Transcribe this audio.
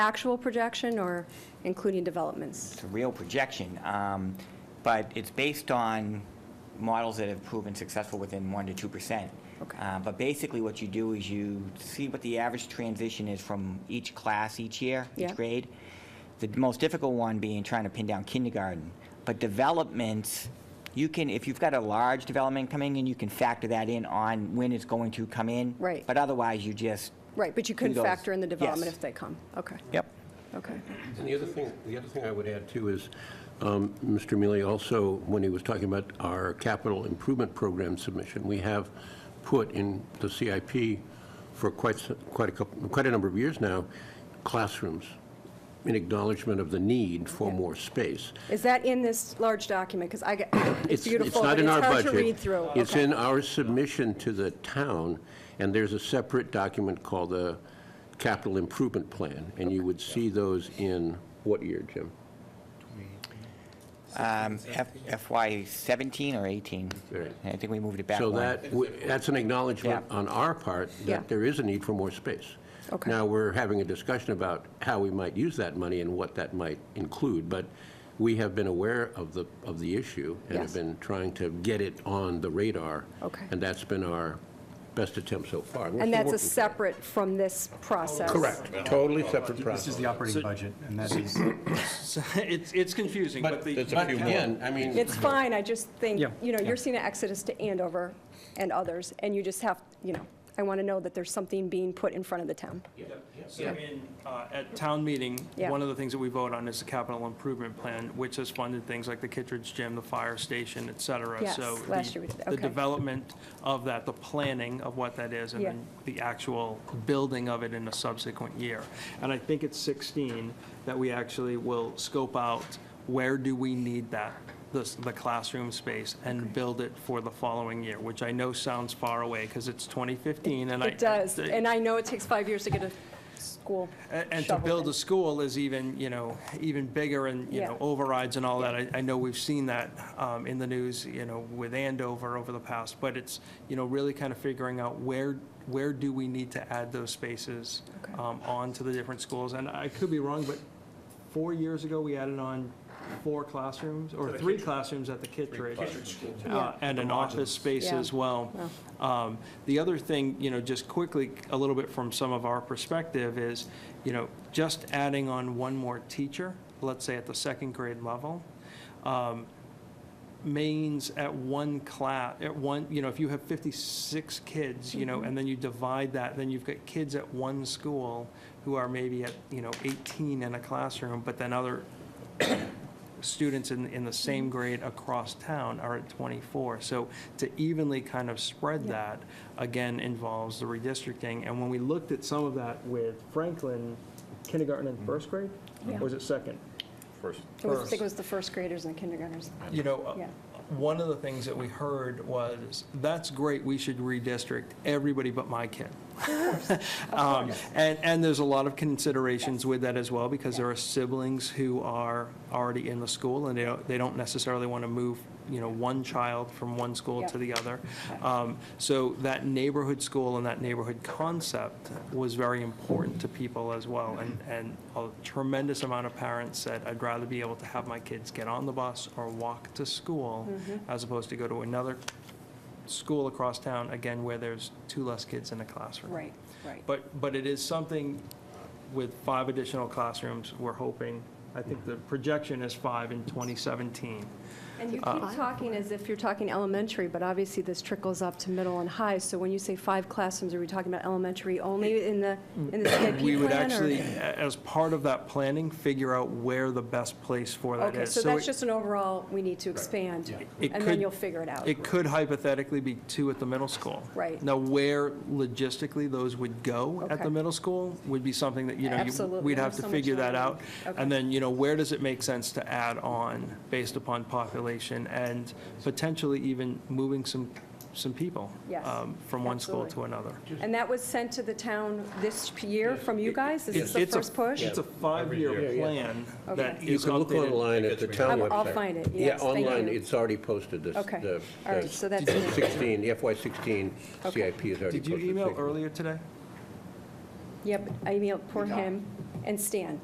actual projection or including developments? It's a real projection, um, but it's based on models that have proven successful within 1% to 2%. Okay. Uh, But basically, what you do is you see what the average transition is from each class each year, each Yeah. grade. The most difficult one being trying to pin down kindergarten. But developments, you can, if you've got a large development coming in, you can factor that in on when it's going to come in. Right. But otherwise, you just, Right, but you couldn't those. factor in the development Yes. if they come? Okay, yep. okay. And the other thing, the other thing I would add too is, um, Mr. Mealy also, when he was talking about our capital improvement program submission, we have put in the CIP for quite, s- quite a couple, quite a number of years now, classrooms in acknowledgement of the need for more space. Is that in this large document? Because I get, it's beautiful, not but in it's our hard to budget. read through. It's Okay. in our submission to the town, and there's a separate document called the Capital Improvement Plan, and you would see those in what year, Jim? Um, F- FY 17 or 18? Right. I think we moved it back So one. that, w- that's an acknowledgement Yeah. on our part Yeah. that there is a need for more space. Okay. Now, we're having a discussion about how we might use that money and what that might include, but we have been aware of the, of the issue and Yes. have been trying to get it on the radar. Okay. And that's been our best attempt so far. We're And still that's a working. separate from this process? Correct, totally separate This is process. the operating budget, and that is, So It's, it's confusing, but But the. but again, I mean, It's fine, I just think, Yeah. you know, you're seeing an exodus to Andover and others, and you just have, you know, I want to know that there's something being put in front of the town. So in, uh, at town meeting, Yeah. one of the things that we vote on is the capital improvement plan, which has funded things like the Kittredge Gym, the fire station, et cetera. Yes, So last the- year we did, The okay. development of that, the planning of what that is, and Yeah. then the actual building of it in a subsequent year. And I think it's 16 that we actually will scope out, where do we need that, the, the classroom space, and build it for the following year, which I know sounds far away, because it's 2015, and I. It does, and I know it takes five years to get a school A- And to shoveled build in. a school is even, you know, even bigger and, you Yeah. know, overrides and all that. I, I know we've seen that um, in the news, you know, with Andover over the past, but it's, you know, really kind of figuring out where, where do we need to add those spaces Okay. um, on to the different schools? And I could be wrong, but four years ago, we added on four classrooms, or three classrooms at the Kittredge. Uh, And an office space Yeah. as well. Um, The other thing, you know, just quickly, a little bit from some of our perspective is, you know, just adding on one more teacher, let's say at the second grade level, um, means at one class, at one, you know, if you have 56 kids, you know, and then you divide that, then you've got kids at one school who are maybe at, you know, 18 in a classroom, but then other students in, in the same grade across town are at 24. So to evenly kind of spread that, again, involves the redistricting. And when we looked at some of that with Franklin kindergarten and first grade, or was it second? It was- I think it was the first graders and kindergartners. You know, uh, Yeah. one of the things that we heard was, that's great, we should redistrict everybody but my kid. Um, And, and there's a lot of considerations with that as well, because there are siblings who are already in the school, and they don't, they don't necessarily want to move, you know, one child from one school to Yeah. the other. Um, So that neighborhood school and that neighborhood concept was very important to people as well. And, and a tremendous amount of parents said, I'd rather be able to have my kids get on the bus or walk to school Mm-hmm. as opposed to go to another school across town, again, where there's two less kids in a classroom. Right, right. But, but it is something with five additional classrooms, we're hoping, I think the projection is five in 2017. And you uh, keep talking as if you're talking elementary, but obviously this trickles up to middle and high. So when you say five classrooms, are we talking about elementary only in the, in the CIP plan? Mm, We would or- actually, a- as part of that planning, figure out where the best place for that is. Okay, so that's it- just an overall, we need to expand, It and then could- you'll figure it out. It could hypothetically be two at the middle school. Right. Now, where logistically those would go at Okay. the middle school would be something that, you know, you- Absolutely. we'd have There's to so much figure that out. land. Okay. And then, you know, where does it make sense to add on based upon population and potentially even moving some, some people? Yes, um, From one school to absolutely. another. And that was sent to the town this year from you guys? Is this the It's a- first push? It's a five-year plan that Okay. you is can look updated online at the town I'll- website. I'll find it, yes, Yeah, thank online, you. it's already posted, this, Okay. the All right, so that's the good. 16, FY16 Okay. CIP is already posted. Did you email Thank earlier today? Yep, I emailed, poor him. and Stan.